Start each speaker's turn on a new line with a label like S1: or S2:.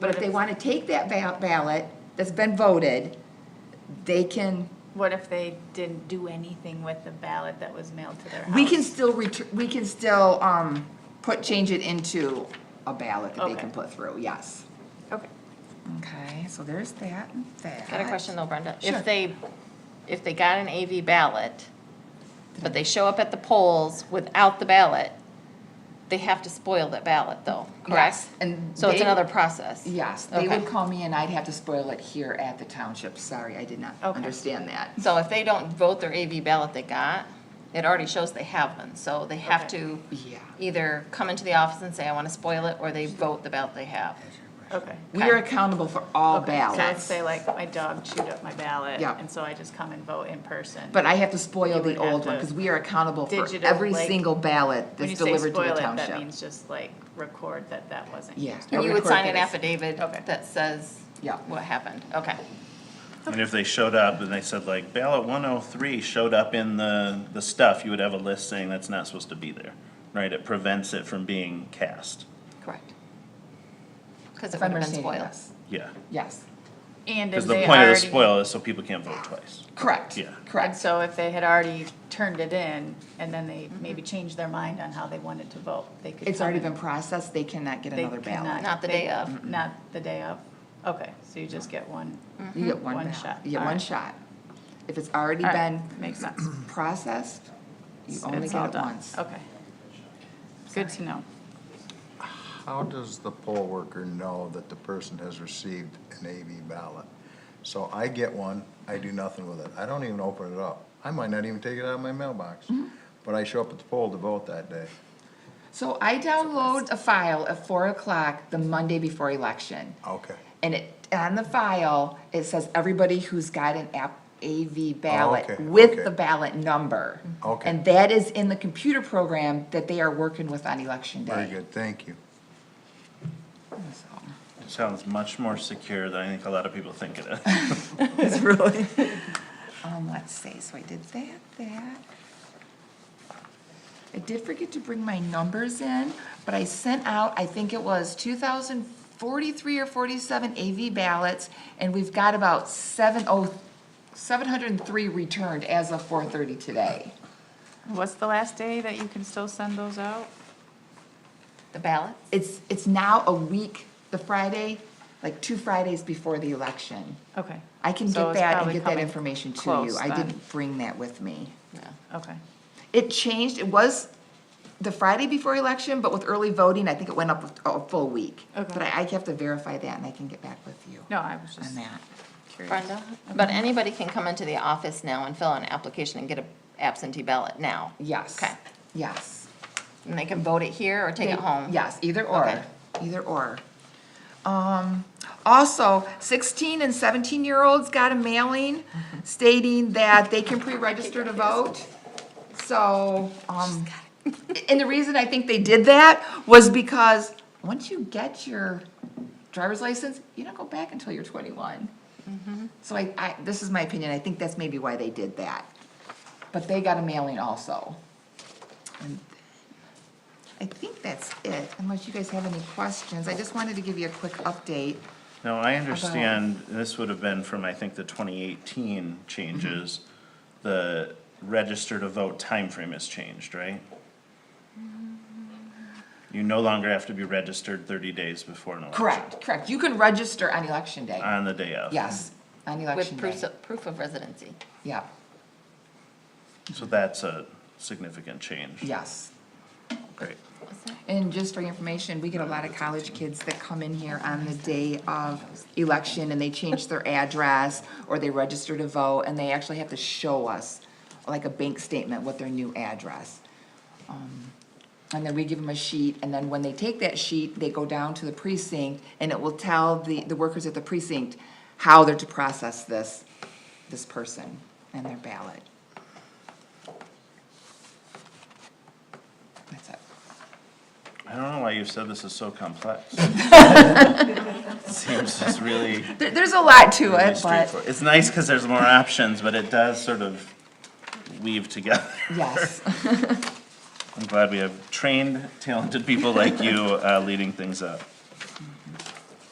S1: But if they want to take that ba- ballot that's been voted, they can,
S2: What if they didn't do anything with the ballot that was mailed to their house?
S1: we can still, ret- we can still um, put, change it into a ballot that they
S2: Okay.
S1: can put through, yes.
S2: Okay.
S1: Okay, so there's that and that.
S3: Got a question though, Brenda.
S1: Sure.
S3: If they, if they got an AV ballot, but they show up at the polls without the ballot, they have to spoil that ballot though, correct?
S1: Yes, and
S3: So it's
S1: they-
S3: another process?
S1: Yes, they would
S3: Okay.
S1: call me and I'd have to spoil it here at the township. Sorry, I did not
S2: Okay.
S1: understand that.
S3: So if they don't vote their AV ballot they got, it already shows they have one, so they have
S2: Okay.
S3: to
S1: Yeah.
S3: either come into the office and say, I wanna spoil it, or they vote the ballot they have.
S2: Okay.
S1: We are accountable for all
S2: Okay, So let's
S1: ballots,
S2: say like my dog chewed up my ballot.
S1: Yeah.
S2: And so I just come and vote in person.
S1: but I have to spoil
S2: You
S1: the
S2: would have
S1: old one
S2: to
S1: because we are accountable for
S2: digital,
S1: every
S2: like-
S1: single ballot
S2: When you
S1: that's
S2: say
S1: delivered to
S2: spoil
S1: the
S2: it, that
S1: township.
S2: means just like record that that wasn't.
S1: Yeah.
S2: used.
S1: Or
S3: And you would
S1: record
S3: sign an
S1: this.
S3: affidavit
S2: Okay.
S3: that says
S1: Yeah.
S3: what happened, okay.
S4: And if they showed up and they said like ballot one oh three showed up in the, the stuff, you would have a list saying that's not supposed to be there, right? It prevents it from being cast,
S3: Correct. Cause it
S1: If I'm
S3: would have been
S1: understanding
S3: spoiled.
S1: this.
S4: yeah.
S1: Yes,
S2: And if
S4: Because the
S2: they
S4: point of the
S2: already.
S4: spoil is so people can't vote twice.
S1: correct.
S4: Yeah.
S2: And
S1: Correct.
S2: so if they had already turned it in and then they maybe changed their mind on how they wanted to vote, they could.
S1: Mm-hmm. It's
S2: come
S1: already
S2: and-
S1: been processed, they cannot get
S2: they
S1: another
S2: cannot-
S1: ballot.
S3: Not the
S2: they-
S3: day of.
S2: Not the day of. Okay, so you just get one.
S3: Mm.
S1: You get one
S2: One
S1: ballot,
S2: shot.
S1: you get
S2: All
S1: one
S2: right.
S1: shot. If it's already
S2: All right,
S1: been
S2: Makes sense.
S1: processed, you only
S2: It's all
S1: get it
S2: done.
S1: once.
S2: Okay. Good to know.
S5: How does the poll worker know that the person has received an AV ballot? So I get one, I do nothing with it. I don't even open it up. I might not even take it out of my mailbox. But I show up at the poll to vote that day.
S1: So I download a file at four o'clock the Monday before election.
S5: Okay.
S1: And it, on the file, it says everybody who's got an app, AV ballot
S5: okay,
S1: with
S5: okay.
S1: the ballot number.
S5: Okay.
S1: And that is in the computer program that they are working with on election day.
S5: Very good, thank you.
S1: Oh, So,
S4: Sounds much more secure than I think a lot of people think it is.
S1: It's really. Um, let's see, so I did that, that. I did forget to bring my numbers in, but I sent out, I think it was two thousand forty-three or forty-seven AV ballots, and we've got about seven oh, seven hundred and three returned as of four thirty today.
S2: What's the last day that you can still send those out?
S3: The ballot?
S1: It's, it's now a week, the Friday, like two Fridays before the election.
S2: Okay.
S1: I can
S2: So
S1: get
S2: it's
S1: that and
S2: probably
S1: get that
S2: coming
S1: information to you.
S2: close
S1: I
S2: then.
S1: didn't bring that with me.
S3: No.
S2: Okay.
S1: It changed, it was the Friday before election, but with early voting, I think it went up a full week.
S2: Okay.
S1: But I, I have to verify that and I can get back with you
S2: No, I was
S1: on
S2: just
S1: that.
S2: curious.
S3: Brenda, but anybody can come into the office now and fill out an application and get a absentee ballot now,
S1: Yes.
S3: Okay.
S1: Yes.
S3: and they can vote it here or take it
S1: They-
S3: home.
S1: Yes, either
S3: Okay.
S1: or, either or. Um, also, sixteen and seventeen-year-olds got a mailing
S3: Mm-hmm.
S1: stating that they can pre-register to vote. So, um, and the reason I think they did that was because once you get your driver's license, you don't go back until you're twenty-one.
S3: Mm-hmm.
S1: So I, I, this is my opinion, I think that's maybe why they did that. But they got a mailing also. And I think that's it, unless you guys have any questions. I just wanted to give you a quick update.
S4: No, I understand, this would have been from, I think, the twenty eighteen
S2: Mm-hmm.
S4: changes. The register to vote timeframe has changed, right?
S2: Mm-hmm.
S4: You no longer have to be registered thirty days before an election.
S1: Correct, correct. You can register on election day.
S4: On the day of.
S1: Yes, on election
S3: With
S1: day.
S3: proof of, proof of residency.
S1: Yeah,
S4: So that's a significant change.
S1: yes.
S4: Great.
S1: And just for your information, we get a lot of college kids that come in here on the day of election and they change their address or they register to vote and they actually have to show us, like a bank statement, what their new address. Um, And then we give them a sheet and then when they take that sheet, they go down to the precinct and it will tell the, the workers at the precinct how they're to process this, this person and their ballot. That's it.
S4: I don't know why you said this is so complex. Seems just really,
S1: There, there's a lot to
S4: really
S1: it, but.
S4: straightforward. It's nice because there's more options, but it does sort of weave together.
S1: Yes,
S4: I'm glad we have trained, talented people like you uh, leading things up.